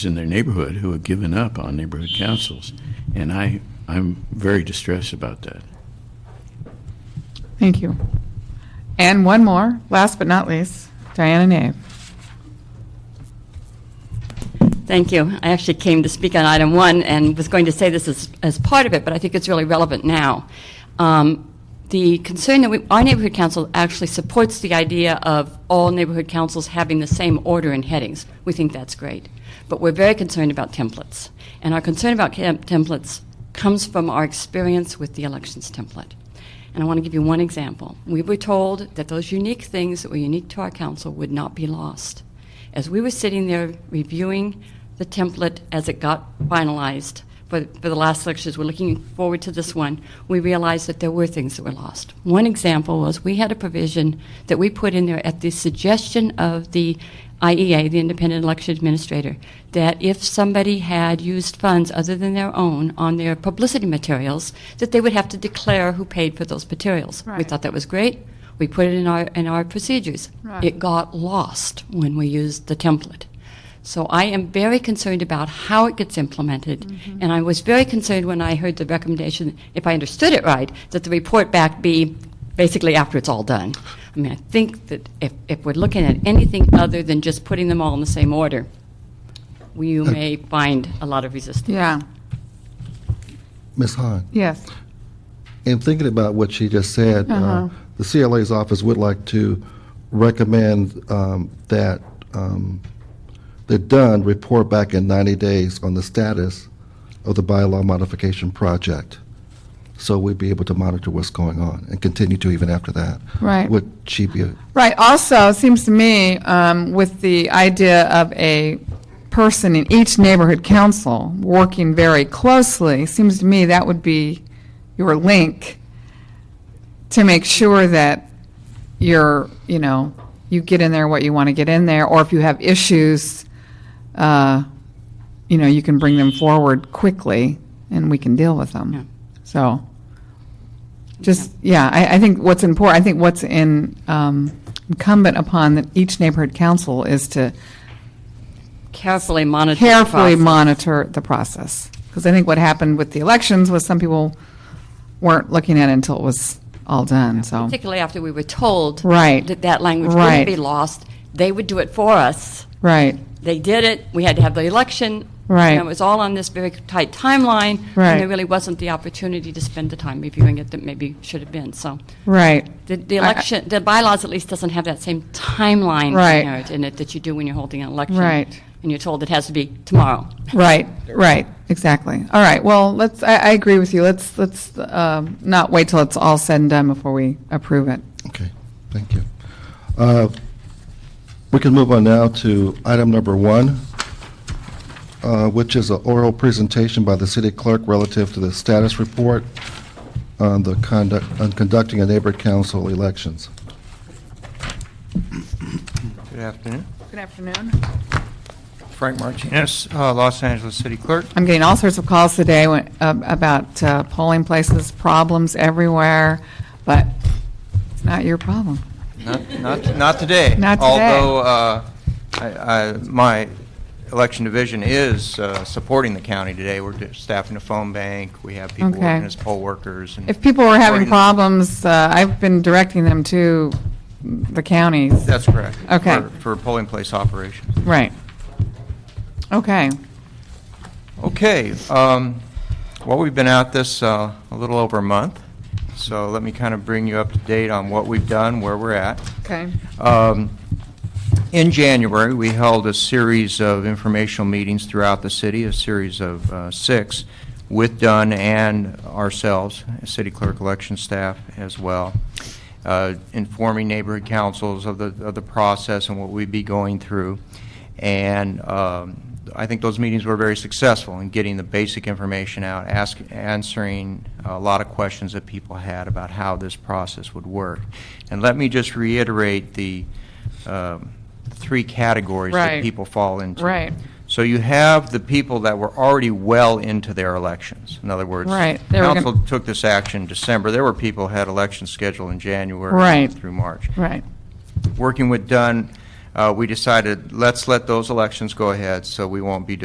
in their neighborhood who have given up on neighborhood councils, and I, I'm very distressed about that. Thank you. And one more, last but not least, Diana Nave. Thank you. I actually came to speak on item one and was going to say this as, as part of it, but I think it's really relevant now. Um, the concern that we, our neighborhood council actually supports the idea of all neighborhood councils having the same order and headings. We think that's great. But we're very concerned about templates. And our concern about cam- templates comes from our experience with the elections template. And I want to give you one example. We were told that those unique things that were unique to our council would not be lost as we were sitting there reviewing the template as it got finalized for, for the last lectures, we're looking forward to this one, we realized that there were things that were lost. One example was we had a provision that we put in there at the suggestion of the IEA, the Independent Election Administrator, that if somebody had used funds other than their own on their publicity materials, that they would have to declare who paid for those materials. We Right. thought that was great. We put it in our, in our procedures. Right. It got lost when we used the template. So I am very concerned about how it gets implemented. Mm-hmm. And I was very concerned when I heard the recommendation, if I understood it right, that the report back be basically after it's all done. I mean, I think that if, if we're looking at anything other than just putting them all in the same order, we- you may find a lot of resistance. Yeah, Ms. Hahn, yes. in thinking about what she just said, uh, Uh-huh. the CLA's office would like to recommend um, that um, they're done, report back in 90 days on the status of the bylaw modification project, so we'd be able to monitor what's going on and continue to even after that. Right. Would she be, Right, also, it seems to me, um, with the idea of a person in each neighborhood council working very closely, seems to me that would be your link to make sure that you're, you know, you get in there what you want to get in there, or if you have issues, uh, you know, you can bring them forward quickly, and we can deal with them. Yeah. So, just, yeah, I, I think what's important, I think what's in, um, incumbent upon the- each neighborhood council is to Carefully monitor. the carefully process. monitor the process. Because I think what happened with the elections was some people weren't looking at it until it was all done, so. Particularly after we were told. Right. That that language Right. wouldn't be lost. They would do it for us. Right, they did it. We had to have the election. Right. And it was all on this very tight timeline. Right. And there really wasn't the opportunity to spend the time reviewing it that maybe should have been. So right, the, the I- I- election, the bylaws at least doesn't have that same timeline Right. inherent in it that you do when you're holding an election. Right. And you're told it has to be tomorrow. right, right, exactly. All right, well, let's, I, I agree with you. Let's, let's, um, not wait till it's all said and done before we approve it. okay, thank you. Uh, We can move on now to item number one, uh, which is an oral presentation by the city clerk relative to the status report on the conduct, on conducting a neighborhood council elections. Good afternoon. Good afternoon. Frank Martinez, uh, Los Angeles City Clerk. I'm getting all sorts of calls today when- ab- about uh, polling places, problems everywhere, but it's not your problem. Not, not, not today. Not today. Although, uh, I, I, my election division is, uh, supporting the county today. We're staffing the phone bank. We have people Okay. working as poll workers. and- If people are having Working- problems, uh, I've been directing them to the counties. That's correct. Okay. For- For polling place operations. Right. Okay. Okay, um, well, we've been at this uh, a little over a month, so let me kind of bring you up to date on what we've done, where we're at. Okay. Um, In January, we held a series of informational meetings throughout the city, a series of uh, six, with Dunn and ourselves, city clerk election staff as well, uh, informing neighborhood councils of the, of the process and what we'd be going through. And um, I think those meetings were very successful in getting the basic information out, ask, answering a lot of questions that people had about how this process would work. And let me just reiterate the um, three categories Right. that people fall into. Right. So you have the people that were already well into their elections. In other words, Right. They were gonna- council took this action in December. There were people who had elections scheduled in January Right. through March Right. working with Dunn, uh, we decided, let's let those elections go ahead, so we won't be